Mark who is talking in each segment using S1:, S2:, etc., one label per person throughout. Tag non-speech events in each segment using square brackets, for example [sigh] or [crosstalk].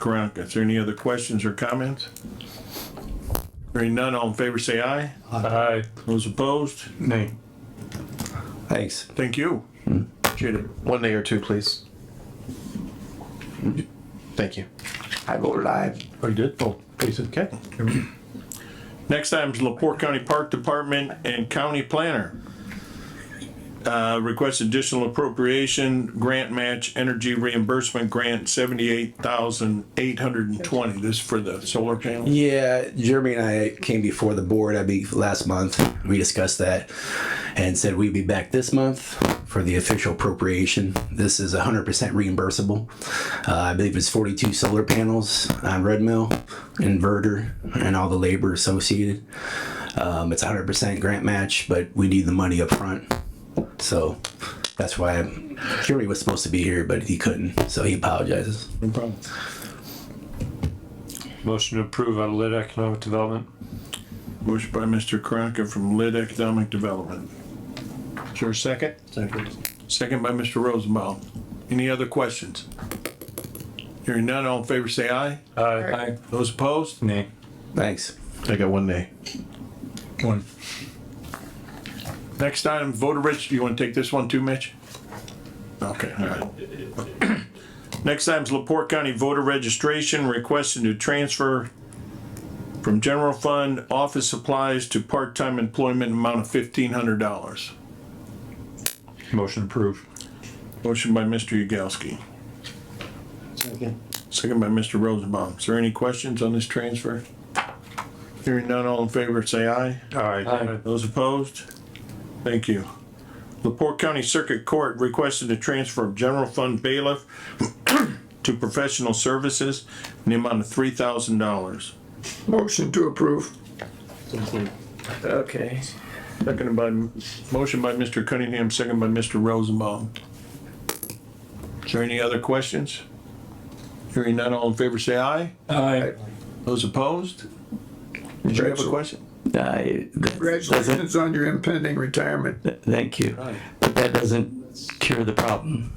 S1: Karanka. Is there any other questions or comments? Hearing none, all in favor say aye.
S2: Aye.
S1: Those opposed?
S2: Nay.
S3: Thanks.
S1: Thank you. Appreciate it.
S4: One nay or two, please. Thank you.
S3: I voted aye.
S2: Oh, you did? Oh, please, okay.
S1: Next item is Lepore County Park Department and County Planner. Uh, request additional appropriation, grant match, energy reimbursement grant, seventy-eight thousand eight hundred and twenty. This is for the solar panels.
S3: Yeah, Jeremy and I came before the board, I believe, last month. We discussed that and said we'd be back this month for the official appropriation. This is 100% reimbursable. Uh, I believe it's 42 solar panels on Red Mill, inverter, and all the labor associated. Um, it's 100% grant match, but we need the money up front. So that's why I'm, Jeremy was supposed to be here, but he couldn't. So he apologizes.
S1: No problem.
S2: Motion to approve on lit economic development.
S1: Motion by Mr. Karanka from Lid Economic Development. Is there a second? Second. Second by Mr. Rosenbaum. Any other questions? Hearing none, all in favor say aye.
S2: Aye.
S1: Those opposed?
S2: Nay.
S3: Thanks.
S4: I got one nay.
S2: One.
S1: Next item, voter rich, you wanna take this one too, Mitch? Okay, alright. [coughs] Next item is Laporte County voter registration, requesting to transfer from general fund office supplies to part-time employment amount of fifteen hundred dollars.
S2: Motion approved.
S1: Motion by Mr. Yagowski. Second. Second by Mr. Rosenbaum. Is there any questions on this transfer? Hearing none, all in favor, say aye.
S2: Aye.
S1: Those opposed? Thank you. Laporte County Circuit Court requested a transfer of general fund bailiff [clears throat] to professional services in the amount of three thousand dollars.
S5: Motion to approve. Okay.
S1: Seconded by, motion by Mr. Cunningham, second by Mr. Rosenbaum. Is there any other questions? Hearing none, all in favor, say aye.
S2: Aye.
S1: Those opposed? Did you have a question?
S6: I, that doesn't,
S5: Congratulations on your impending retirement.
S6: thank you, but that doesn't cure the problem.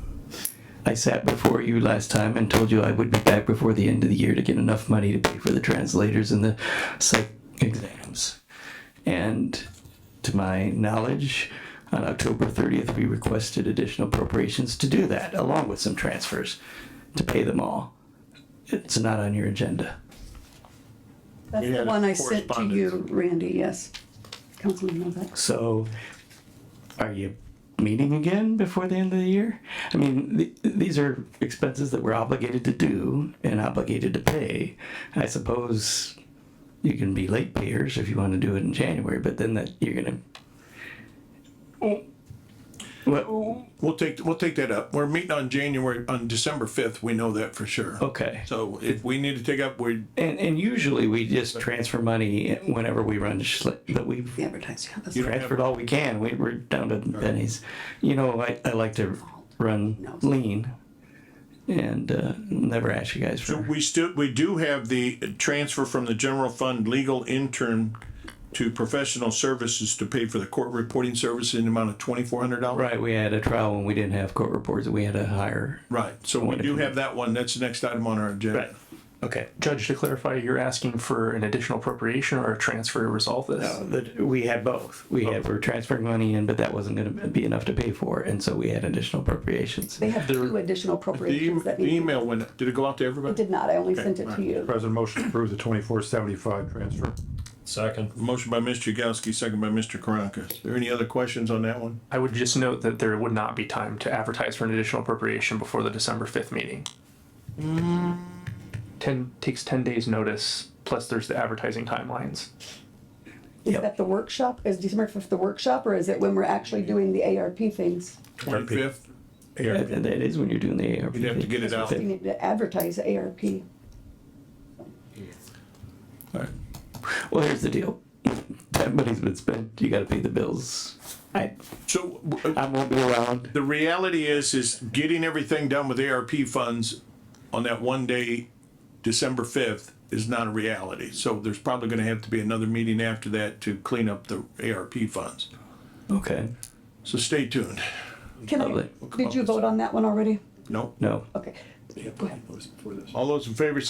S6: I sat before you last time and told you I would be back before the end of the year to get enough money to pay for the translators and the psych exams. And to my knowledge, on October thirtieth, we requested additional appropriations to do that, along with some transfers, to pay them all. It's not on your agenda.
S7: That's
S1: We
S7: the
S1: had
S7: one I sent to you,
S1: correspondence.
S7: Randy, yes. Councilman Novak.
S6: So, are you meeting again before the end of the year? I mean, th- these are expenses that we're obligated to do and obligated to pay. I suppose you can be late payers if you want to do it in January, but then that you're gonna. Well,
S1: We'll take, we'll take that up. We're meeting on January, on December fifth, we know that for sure.
S6: okay.
S1: So if we need to take up, we,
S6: And and usually we just transfer money whenever we run, shli- but we've
S7: The advertising. yeah, that's
S1: You don't have-
S6: transferred all we can. We, we're down to pennies. You know, I, I like to run lean and uh, never ask you guys for.
S1: we still, we do have the transfer from the general fund legal intern to professional services to pay for the court reporting service in the amount of twenty-four hundred dollars.
S6: Right, we had a trial when we didn't have court reports. We had to hire.
S1: Right, so we do have that one. That's the next item on our agenda.
S8: Okay, Judge, to clarify, you're asking for an additional appropriation or a transfer to resolve this?
S6: But uh, we had both. We had, we were transferring money in, but that wasn't going to be enough to pay for. it, And so we had additional appropriations.
S7: They have two additional
S1: The em-
S7: appropriations that
S1: the
S7: need.
S1: email went, did it go out to everybody?
S7: I did not, I only sent it to you.
S2: President motion to approve the twenty-four seventy-five transfer. Second.
S1: Motion by Mr. Yagowski, second by Mr. Karanka. Is there any other questions on that one?
S8: I would just note that there would not be time to advertise for an additional appropriation before the December fifth meeting. Ten, takes ten days notice, plus there's the advertising timelines.
S7: Is that the workshop, is December fifth the workshop, or is it when we're actually doing the ARP things?
S1: Twenty-fifth?
S6: That that is when you're doing the ARP.
S1: You'd have to get it out.
S7: We need to advertise ARP.
S6: Well, here's the deal. That money's been spent. You got to pay the bills. I,
S1: So w-
S6: I won't be around.
S1: the reality is, is getting everything done with ARP funds on that one day, December fifth, is not a reality. So there's probably gonna have to be another meeting after that to clean up the ARP funds.
S6: Okay.
S1: So stay tuned.
S7: Can I,
S6: Lovely.
S7: did you vote on that one already?
S1: Nope.
S6: No.
S7: Okay. Go ahead.
S1: All those in favor